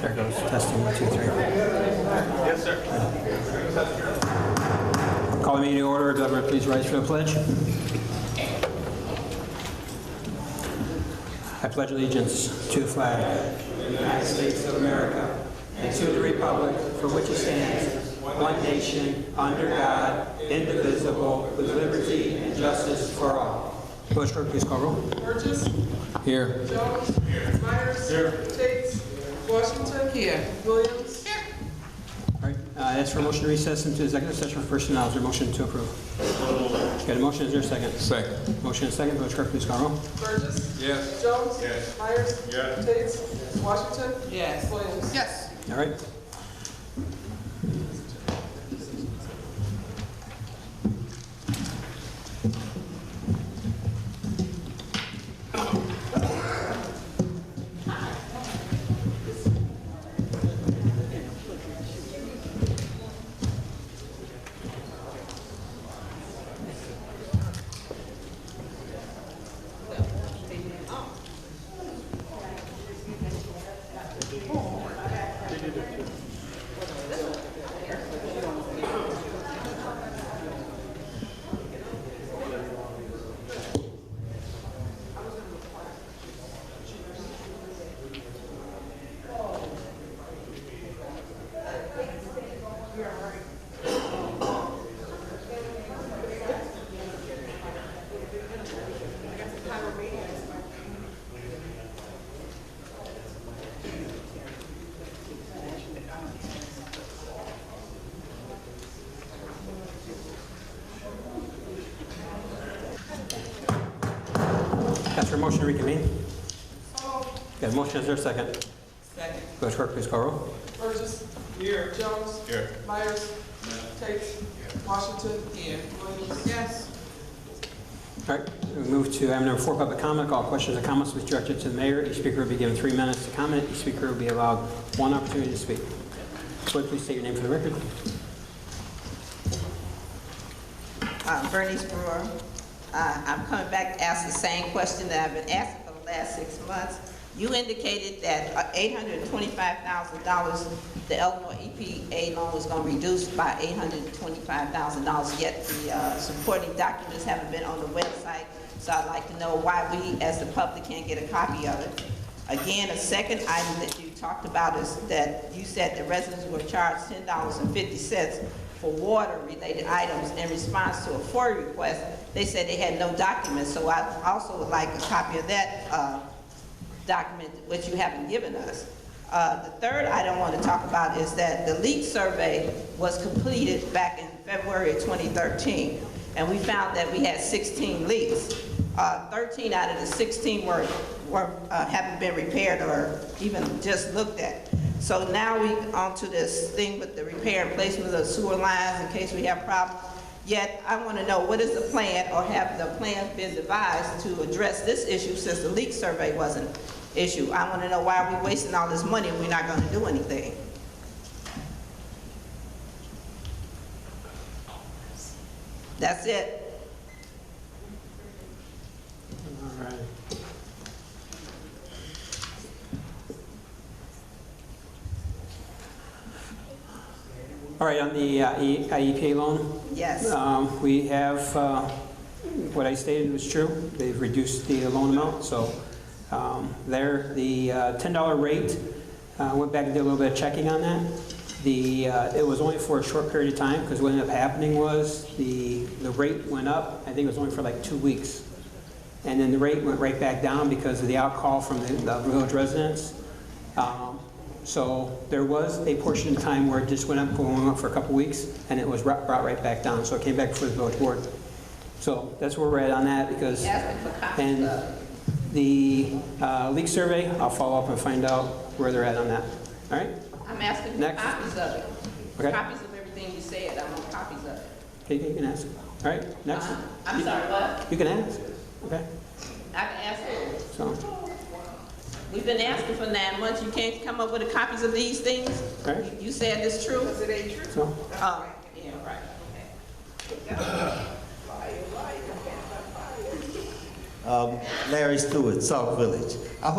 There goes. Testing, one, two, three. Yes, sir. Call the meeting to order. Governor, please rise for the pledge. I pledge allegiance to the flag. United States of America, and to the republic for which it stands, one nation, under God, indivisible, with liberty and justice for all. Bush, please call roll. Burgess. Here. Jones. Myers. Tate. Washington. Here. Williams. All right, uh, ask for a motion to recess into executive session for personnel. Is there a motion to approve? Got a motion, is there a second? Second. Motion and second, Village Clerk, please call roll. Burgess. Yes. Jones. Myers. Tate. Washington. Yes. Williams. Yes. All right. Ask for a motion to reconvene. Got a motion, is there a second? Second. Village Clerk, please call roll. Burgess. Here. Jones. Here. Myers. Tate. Washington. Here. Williams. Yes. All right, we move to item number four, public comment. All questions or comments will be directed to the mayor. Each speaker will be given three minutes to comment. Each speaker will be allowed one opportunity to speak. Clerk, please state your name for the record. Uh, Bernice Brewer. Uh, I'm coming back to ask the same question that I've been asking for the last six months. You indicated that uh, $825,000, the Elmore EPA loan was going to reduce by $825,000, yet the uh, supporting documents haven't been on the website, so I'd like to know why we, as the public, can't get a copy of it. Again, a second item that you talked about is that you said the residents were charged ten dollars and fifty cents for water-related items in response to a FOIA request. They said they had no documents, so I also would like a copy of that, uh, document, which you haven't given us. Uh, the third item I want to talk about is that the leak survey was completed back in February of 2013, and we found that we had 16 leaks. Uh, 13 out of the 16 were, were, uh, haven't been repaired or even just looked at. So now we onto this thing with the repair and placement of sewer lines in case we have problems. Yet, I want to know, what is the plan, or have the plans been devised to address this issue since the leak survey wasn't issued? I want to know why are we wasting all this money and we're not going to do anything? That's it. All right. All right, on the uh, E- IEPA loan, Yes. um, we have, uh, what I stated was true. They've reduced the loan amount, so um, there, the uh, $10 rate, uh, went back and did a little bit of checking on that. The, uh, it was only for a short period of time, because what ended up happening was the, the rate went up, I think it was only for like two weeks. And then the rate went right back down because of the outcall from the the village residents. Um, So there was a portion of time where it just went up, going up for a couple weeks, and it was ri- brought right back down. So it came back before the village board. So that's where we're at on that because. Asking for copies And of- the uh, leak survey, I'll follow up and find out where they're at on that. All right? I'm asking for Next. copies of it. Okay. Copies of everything you said, I want copies of it. Okay, You can ask. All right, next. Uh-huh. I'm sorry, what? You can ask. Okay, I can ask it. so, all We've been asking for nine months, you can't come up with the copies of these things? right, You said it's true? it ain't true? so. Oh, yeah, right. Larry Stewart, South Village.